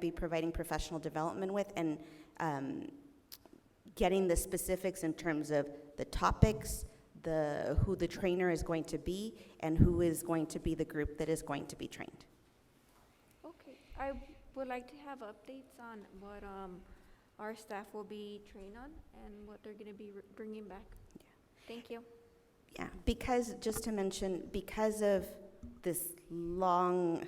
be providing professional development with and um, getting the specifics in terms of the topics, the, who the trainer is going to be, and who is going to be the group that is going to be trained. Okay, I would like to have updates on what, um, our staff will be trained on and what they're gonna be r- bringing back. Yeah. Thank you. Yeah, because, just to mention, because of this long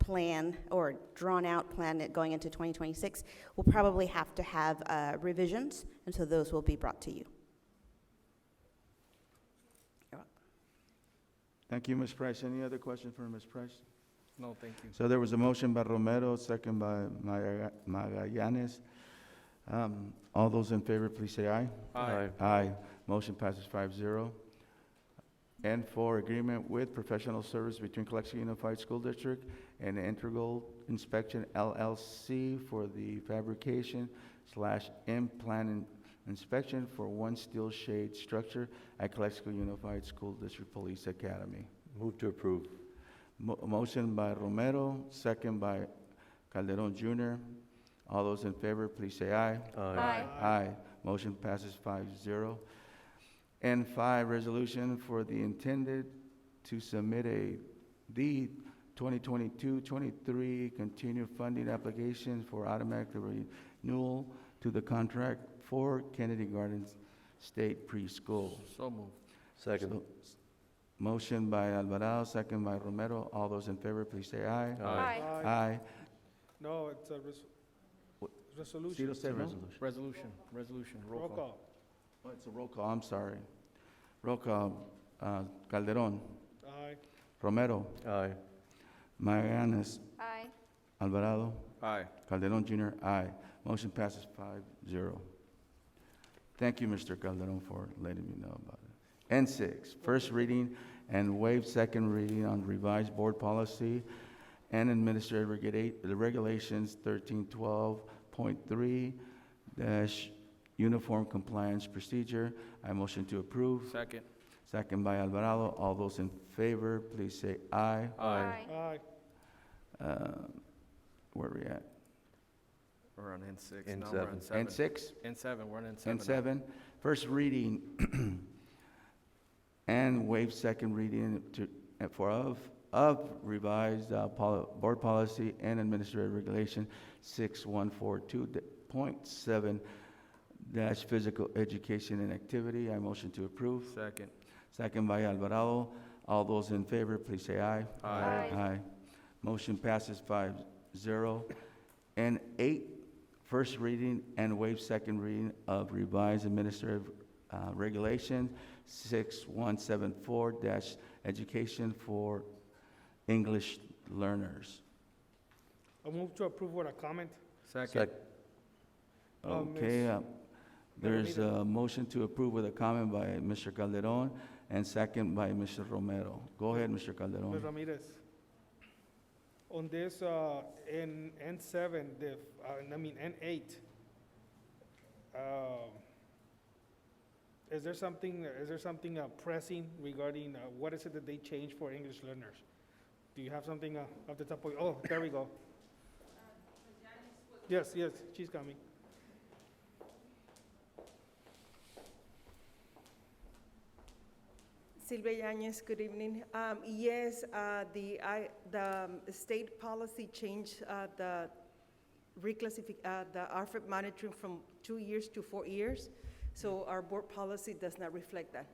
plan or drawn-out plan that going into 2026, we'll probably have to have uh, revisions, and so those will be brought to you. Thank you, Ms. Price. Any other question for Ms. Price? No, thank you. So there was a motion by Romero, second by Maga- Magallanes. Um, All those in favor, please say aye. Aye. Aye. Motion passes five zero. And for agreement with professional service between Calexico Unified School District and Integral Inspection LLC for the fabrication slash implant in- inspection for one steel shade structure at Calexico Unified School District Police Academy. Move to approve. Mo- Motion by Romero, second by Calderon Jr. All those in favor, please say aye. Aye. Aye. Motion passes five zero. And five, resolution for the intended to submit a, the 2022-23 continued funding application for automatic renewal to the contract for Kennedy Gardens State Preschool. So moved. Second. So, Motion by Alvarado, second by Romero. All those in favor, please say aye. Aye. Aye. No, it's a res- What? resolution. Zero seven. Resolution, resolution, Roll call. Oh, It's a roll call, I'm sorry. Roll call, uh, Calderon, Aye. Romero, Aye. Magallanes, Aye. Alvarado, Aye. Calderon Junior, aye. Motion passes five zero. Thank you, Mr. Calderon, for letting me know about it. N six, first reading and waive second reading on revised board policy and administrative regulate, the regulations thirteen twelve point three dash uniform compliance procedure. I motion to approve. Second. Second by Alvarado. All those in favor, please say aye. Aye. Uh, Where are we at? We're on N six. N Now we're seven. on N N seven. six? N seven, we're on N seven. N now. seven. First reading and waive second reading to, and for of, of revised uh, poli- board policy and administrative regulation six one four two point seven dash physical education and activity. I motion to approve. Second. Second by Alvarado. All those in favor, please say aye. Aye. Aye. Aye. Motion passes five zero. And eight, first reading and waive second reading of revised administrative uh, regulation six one seven four dash education for English learners. I move to approve with a comment. Second. Um, Okay, Ms. uh, there's a motion to approve with a comment by Mr. Calderon and second by Mr. Romero. Go ahead, Mr. Calderon. Ms. Ramirez. On this, uh, in N seven, the, uh, I mean, N eight. uh, Is there something, is there something uh, pressing regarding, uh, what is it that they changed for English learners? Do you have something uh, off the top of, oh, there we go. Yes, yes, she's coming. Silvia Yanez, good evening. Um, Yes, uh, the, I- the um, state policy changed uh, the reclassify, uh, the RFID monitoring from two years to four years, so our board policy does not reflect that.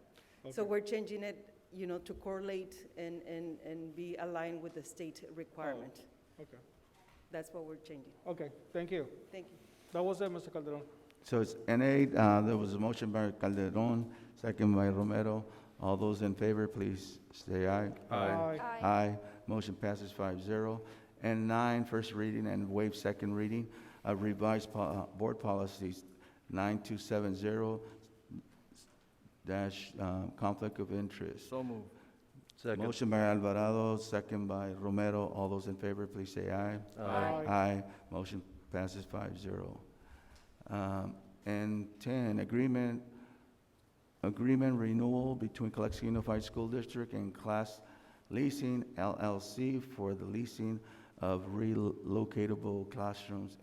So Okay. we're changing it, you know, to correlate and, and, and be aligned with the state requirement. Okay, That's what we're changing. okay, thank you. Thank you. That was it, Mr. Calderon. So it's N8, uh, there was a motion by Calderon, second by Romero. All those in favor, please say aye. Aye. Motion passes 5-0. And nine, first reading and waive second reading of revised po- uh, board policies 9270 dash um, conflict of interest. So moved. Second. Motion by Alvarado, second by Romero. All those in favor, please say aye. Aye. Aye. Motion passes five zero. Um, And ten, agreement, agreement renewal between Calexico Unified School District and Class Leasing LLC for the leasing of relocatable classrooms